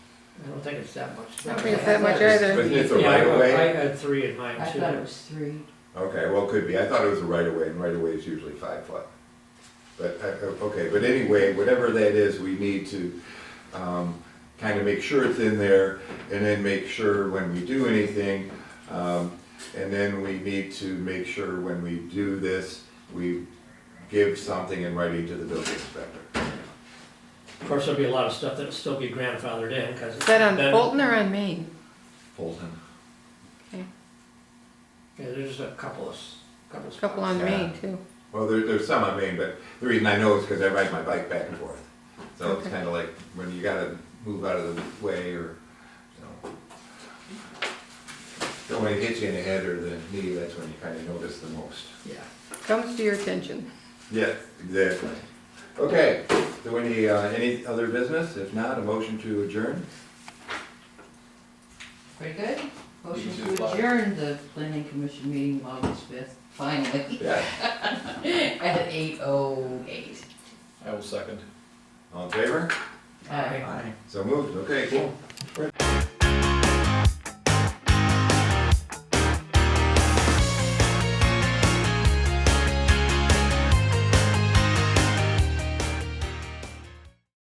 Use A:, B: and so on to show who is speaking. A: don't think it's that much.
B: I don't think it's that much either.
C: Isn't it the
A: Yeah, I
C: right of
A: wrote- I
C: way?
A: had three in mine
D: I
A: too.
D: thought it was three.
C: Okay, well, it could be. I thought it was the right of way, and right of way is usually five foot. But, uh, uh, okay, but anyway, whatever that is, we need to um, kind of make sure it's in there, and then make sure when we do anything, um, and then we need to make sure when we do this, we give something in writing to the building inspector.
A: Of course, there'll be a lot of stuff that'll still be grandfathered in, cause.
B: Is that on
A: then-
B: Fulton or on Main?
C: Fulton.
A: Yeah, there's just a couple of, s- couple of.
B: A couple on
C: Yeah.
B: Main too.
C: Well, there, there's some I mean, but the reason I know is because I ride my bike back and forth. So it's
B: Okay.
C: kind of like when you gotta move out of the way or, you know. Don't want to hit you in the head or the knee, that's when you kind of notice the most.
A: spots. Yeah,
B: Comes to your attention.
C: Yes, exactly. Okay, so any, uh, any other business? If not, a motion to adjourn?
D: Very good. Motion
C: You just
D: to
C: like-
D: adjourn the planning commission meeting August fifth, finally,
C: Yeah.
D: at eight oh eight.
E: I will second.
C: All in favor?
D: Aye.
C: So moved, okay, cool.